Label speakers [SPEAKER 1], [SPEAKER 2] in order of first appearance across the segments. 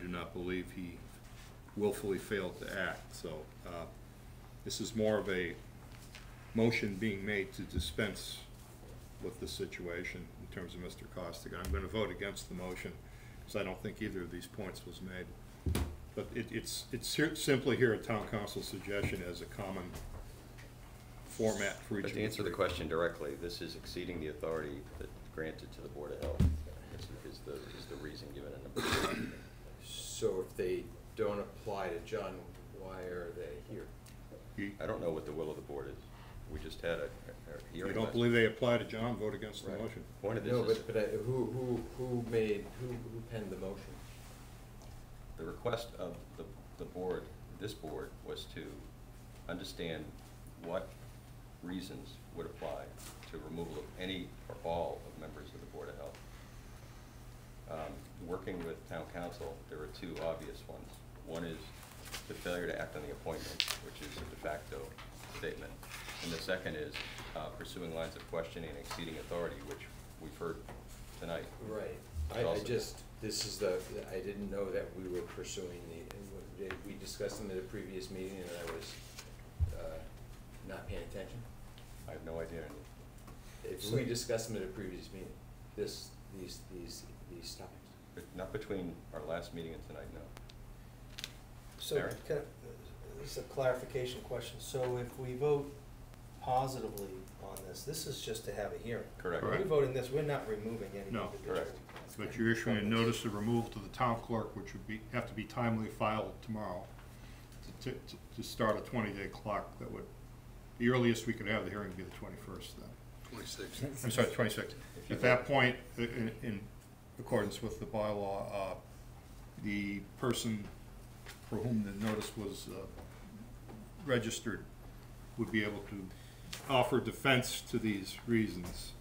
[SPEAKER 1] do not believe he willfully failed to act, so, uh, this is more of a motion being made to dispense with the situation in terms of Mr. Costigan. I'm gonna vote against the motion, because I don't think either of these points was made. But it, it's, it's here- simply here a town council suggestion as a common format for each
[SPEAKER 2] But
[SPEAKER 1] of the
[SPEAKER 2] to answer the
[SPEAKER 1] three.
[SPEAKER 2] question directly, this is exceeding the authority that granted to the Board of Health, is is the, is the reason given in the.
[SPEAKER 3] So if they don't apply to John, why are they here?
[SPEAKER 1] You-
[SPEAKER 2] I don't know what the will of the board is. We just had a, a a
[SPEAKER 1] You
[SPEAKER 2] hearing.
[SPEAKER 1] don't
[SPEAKER 2] last-
[SPEAKER 1] believe they apply to John, vote against the
[SPEAKER 2] Right.
[SPEAKER 1] motion.
[SPEAKER 2] Point of
[SPEAKER 3] No,
[SPEAKER 2] this is,
[SPEAKER 3] but, but I- who, who, who made, who, who penned the motion?
[SPEAKER 2] the request of the, the board, this board, was to understand what reasons would apply to removal of any or all of members of the Board of Health. Um, Working with town council, there are two obvious ones. One is the failure to act on the appointment, which is a de facto statement. And the second is uh, pursuing lines of questioning and exceeding authority, which we've heard tonight.
[SPEAKER 3] Right,
[SPEAKER 2] It's
[SPEAKER 3] I, I
[SPEAKER 2] also-
[SPEAKER 3] just, this is the, I didn't know that we were pursuing the, and we- we discussed them at a previous meeting and I was, uh, not paying attention.
[SPEAKER 2] I have no idea.
[SPEAKER 3] If we discussed them at a previous meeting, this, these, these, these topics.
[SPEAKER 2] But Not between our last meeting and tonight, no.
[SPEAKER 4] So,
[SPEAKER 2] Mary?
[SPEAKER 4] kind of, this is a clarification question. So if we vote positively on this, this is just to have a hearing.
[SPEAKER 2] Correct.
[SPEAKER 4] We're
[SPEAKER 1] Correct.
[SPEAKER 4] voting this, we're not removing any
[SPEAKER 1] No.
[SPEAKER 4] individual.
[SPEAKER 2] Correct.
[SPEAKER 1] But you're issuing a notice of removal to the town clerk, which would be, have to be timely filed tomorrow to, to, to start a twenty-day clock that would, the earliest we could have the hearing would be the twenty-first then. Twenty-sixth. I'm sorry, twenty-sixth. At that point, i- in, in accordance with the bylaw, uh, the person for whom the notice was, uh, registered would be able to offer defense to these reasons.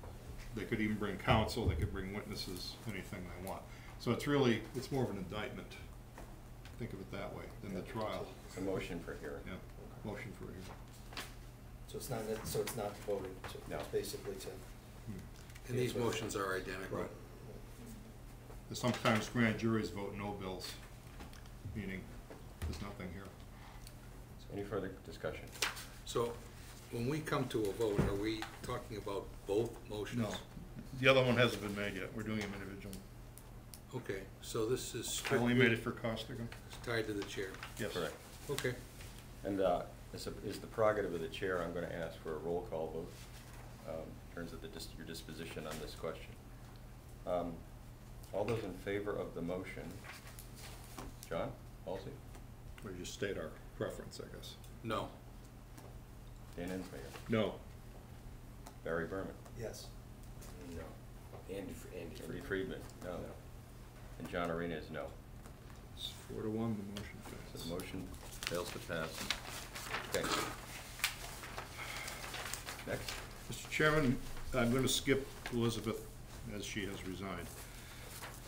[SPEAKER 1] They could even bring counsel, they could bring witnesses, anything they want. So it's really, it's more of an indictment, think of it that way, than the trial.
[SPEAKER 2] It's a motion for hearing.
[SPEAKER 1] Yeah, motion for hearing.
[SPEAKER 4] So it's not, that- so it's not voting, so
[SPEAKER 2] No.
[SPEAKER 4] it's basically to.
[SPEAKER 5] And these motions are identical.
[SPEAKER 1] Right. And Sometimes grand juries vote no bills, meaning there's nothing here.
[SPEAKER 2] Any further discussion?
[SPEAKER 5] So when we come to a vote, are we talking about both motions?
[SPEAKER 1] No, the other one hasn't been made yet, we're doing them individually.
[SPEAKER 5] Okay, so this is
[SPEAKER 1] I only made
[SPEAKER 5] strictly
[SPEAKER 1] it for Costigan?
[SPEAKER 5] tied to the chair.
[SPEAKER 1] Yes.
[SPEAKER 2] Correct.
[SPEAKER 5] Okay,
[SPEAKER 2] And uh, is the- is the prerogative of the chair, I'm going to ask for a roll call vote um, in terms of the dis- your disposition on this question. Um, All those in favor of the motion? John, Halsey,
[SPEAKER 1] We just state our preference, I guess.
[SPEAKER 5] no.
[SPEAKER 2] Dan Ensminger,
[SPEAKER 1] No,
[SPEAKER 2] Barry Berman,
[SPEAKER 4] Yes.
[SPEAKER 3] No, Andy, Fr- Andy.
[SPEAKER 2] Andy Friedman, no. And John Arena is no.
[SPEAKER 1] it's four to one, the motion
[SPEAKER 2] So
[SPEAKER 1] fails.
[SPEAKER 2] the motion fails to pass. Okay. Next.
[SPEAKER 1] Mr. Chairman, I'm going to skip Elizabeth, as she has resigned.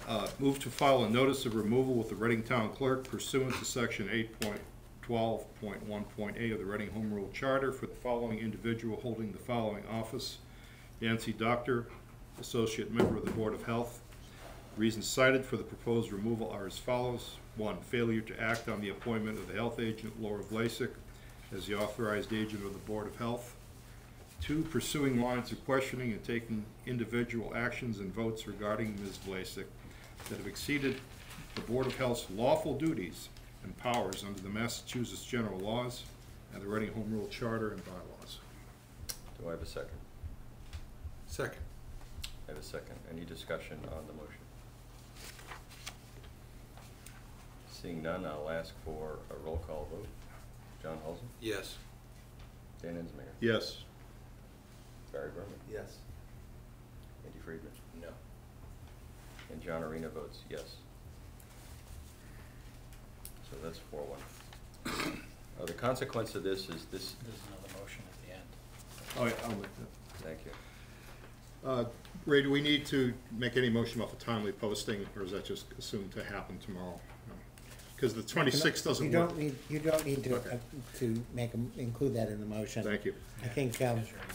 [SPEAKER 1] Uh, Move to file a notice of removal with the Reading Town Clerk pursuant to Section 8.12.1.8 of the Reading Home Rule Charter for the following individual holding the following office. Nancy Doctor, Associate Member of the Board of Health. Reasons cited for the proposed removal are as follows. One, failure to act on the appointment of the health agent Laura Vlasic as the authorized agent of the Board of Health. Two, pursuing lines of questioning and taking individual actions and votes regarding Ms. Vlasic that have exceeded the Board of Health's lawful duties and powers under the Massachusetts general laws and the Reading Home Rule Charter and bylaws.
[SPEAKER 2] Do I have a second?
[SPEAKER 5] Second,
[SPEAKER 2] I have a second. Any discussion on the motion? Seeing none, I'll ask for a roll call vote. John Halsey,
[SPEAKER 5] yes.
[SPEAKER 2] Dan Ensminger,
[SPEAKER 1] Yes.
[SPEAKER 2] Barry Berman,
[SPEAKER 4] Yes.
[SPEAKER 2] Andy Friedman,
[SPEAKER 3] No.
[SPEAKER 2] and John Arena votes yes. So that's four one. Uh, the consequence of this is this,
[SPEAKER 6] There's another motion at the end.
[SPEAKER 1] All right, I'll make that.
[SPEAKER 2] thank you.
[SPEAKER 1] Uh, Ray, do we need to make any motion about the timely posting, or is that just assumed to happen tomorrow? Because the twenty-sixth doesn't
[SPEAKER 7] You
[SPEAKER 1] work.
[SPEAKER 7] don't need, you don't need to,
[SPEAKER 1] Okay.
[SPEAKER 7] uh, to make, 'em- include that in the motion.
[SPEAKER 1] Thank you.
[SPEAKER 7] I think, um,
[SPEAKER 6] There's your email.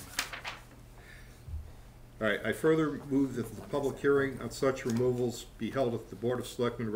[SPEAKER 1] All right, I further move that the public hearing on such removals be held at the Board of Selectmen